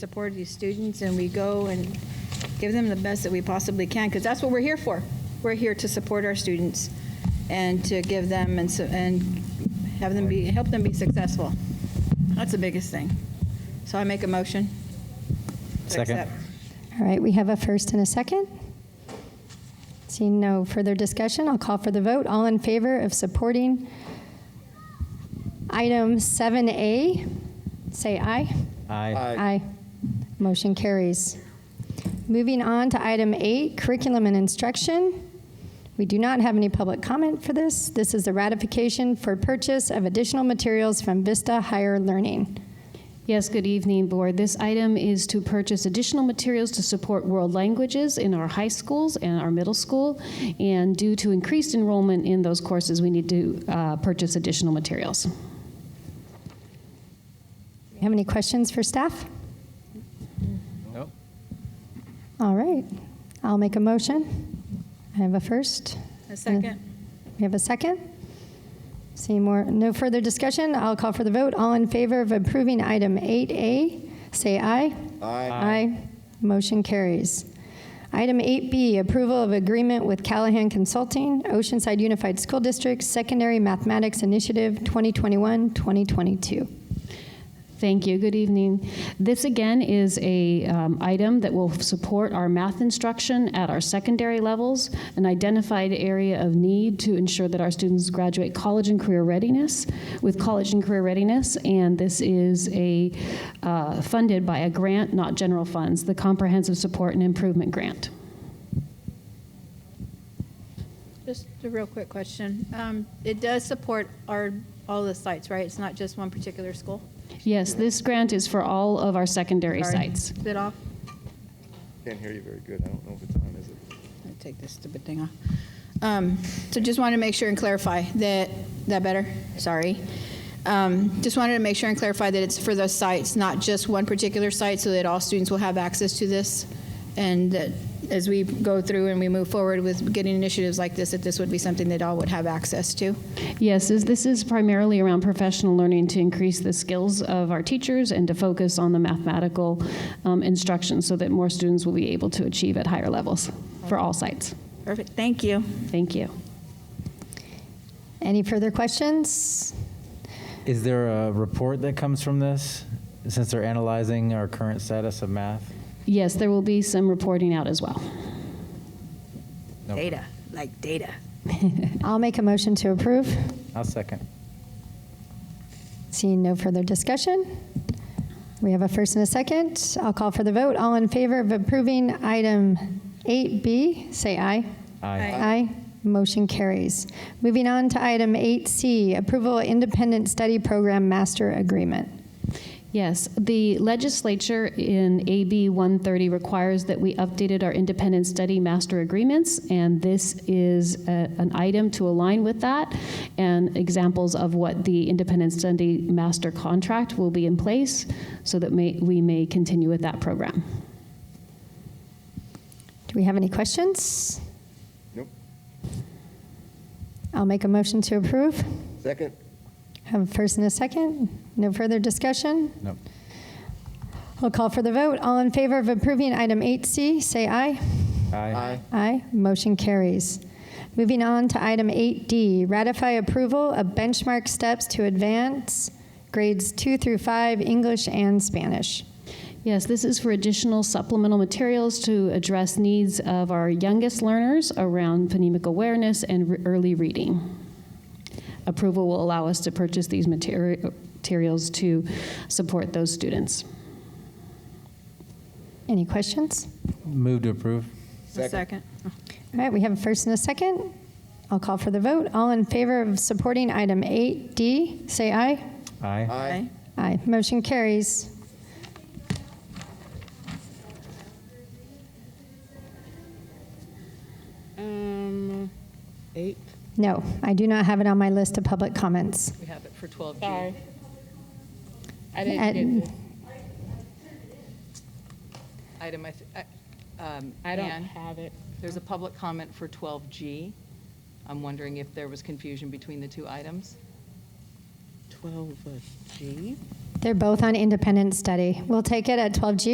support these students and we go and give them the best that we possibly can, because that's what we're here for. We're here to support our students and to give them and, so- and have them be, help them be successful. That's the biggest thing. So I make a motion. to Second. accept. All right, we have a first and a second. Seeing no further discussion, I'll call for the vote. All in favor of supporting item 7A, say aye. Aye. Aye. Motion carries. Moving on to item eight, curriculum and instruction. We do not have any public comment for this. This is a ratification for purchase of additional materials from Vista Higher Learning. Yes, good evening, Board. This item is to purchase additional materials to support world languages in our high schools and our middle school. And due to increased enrollment in those courses, we need to uh, purchase additional materials. Do you have any questions for staff? Nope. All right, I'll make a motion. I have a first. A second. We have a second. See more, no further discussion. I'll call for the vote. All in favor of approving item 8A, say aye. Aye. Aye. Motion carries. Item 8B, approval of agreement with Callahan Consulting, Oceanside Unified School District Secondary Mathematics Initiative 2021-2022. Thank you. Good evening. This again is a um, item that will support our math instruction at our secondary levels, an identified area of need to ensure that our students graduate college and career readiness with college and career readiness. And this is a uh, funded by a grant, not general funds, the Comprehensive Support and Improvement Grant. Just a real quick question. Um, It does support our, all the sites, right? It's not just one particular school? Yes, this grant is for all of our secondary Sorry. sites. Is it off? Can't hear you very good. I don't know if it's on, is it? I'll take this stupid thing off. Um, So just wanted to make sure and clarify that, that better? Sorry. Um, Just wanted to make sure and clarify that it's for those sites, not just one particular site, so that all students will have access to this. And that as we go through and we move forward with getting initiatives like this, that this would be something that all would have access to. Yes, is- this is primarily around professional learning to increase the skills of our teachers and to focus on the mathematical um, instruction so that more students will be able to achieve at higher levels for all sites. Perfect, thank you. Thank you. Any further questions? Is there a report that comes from this, since they're analyzing our current status of math? Yes, there will be some reporting out as well. Nope. Data, like data. I'll make a motion to approve. I'll second. Seeing no further discussion, we have a first and a second. I'll call for the vote. All in favor of approving item 8B, say aye. Aye. Aye. Motion carries. Moving on to item 8C, approval of independent study program master agreement. Yes, the legislature in AB 130 requires that we updated our independent study master agreements, and this is a- an item to align with that, and examples of what the independent study master contract will be in place so that may- we may continue with that program. Do we have any questions? Nope. I'll make a motion to approve. Second? Have a first and a second. No further discussion. Nope. I'll call for the vote. All in favor of approving item 8C, say aye. Aye. Aye, motion carries. Moving on to item 8D, ratify approval of benchmark steps to advance grades 2 through 5, English and Spanish. Yes, this is for additional supplemental materials to address needs of our youngest learners around phonemic awareness and re- early reading. Approval will allow us to purchase these materi- materials to support those students. Any questions? Move to approve. A second. All right, we have a first and a second. I'll call for the vote. All in favor of supporting item 8D, say aye. Aye. Aye. Aye, motion carries. Um, eight, No, I do not have it on my list of public comments. we have it for twelve G. I didn't And- get this item, I, th- I- um. I don't have it. There's a public comment for twelve G. I'm wondering if there was confusion between the two items? They're both on independent study. We'll take it at 12G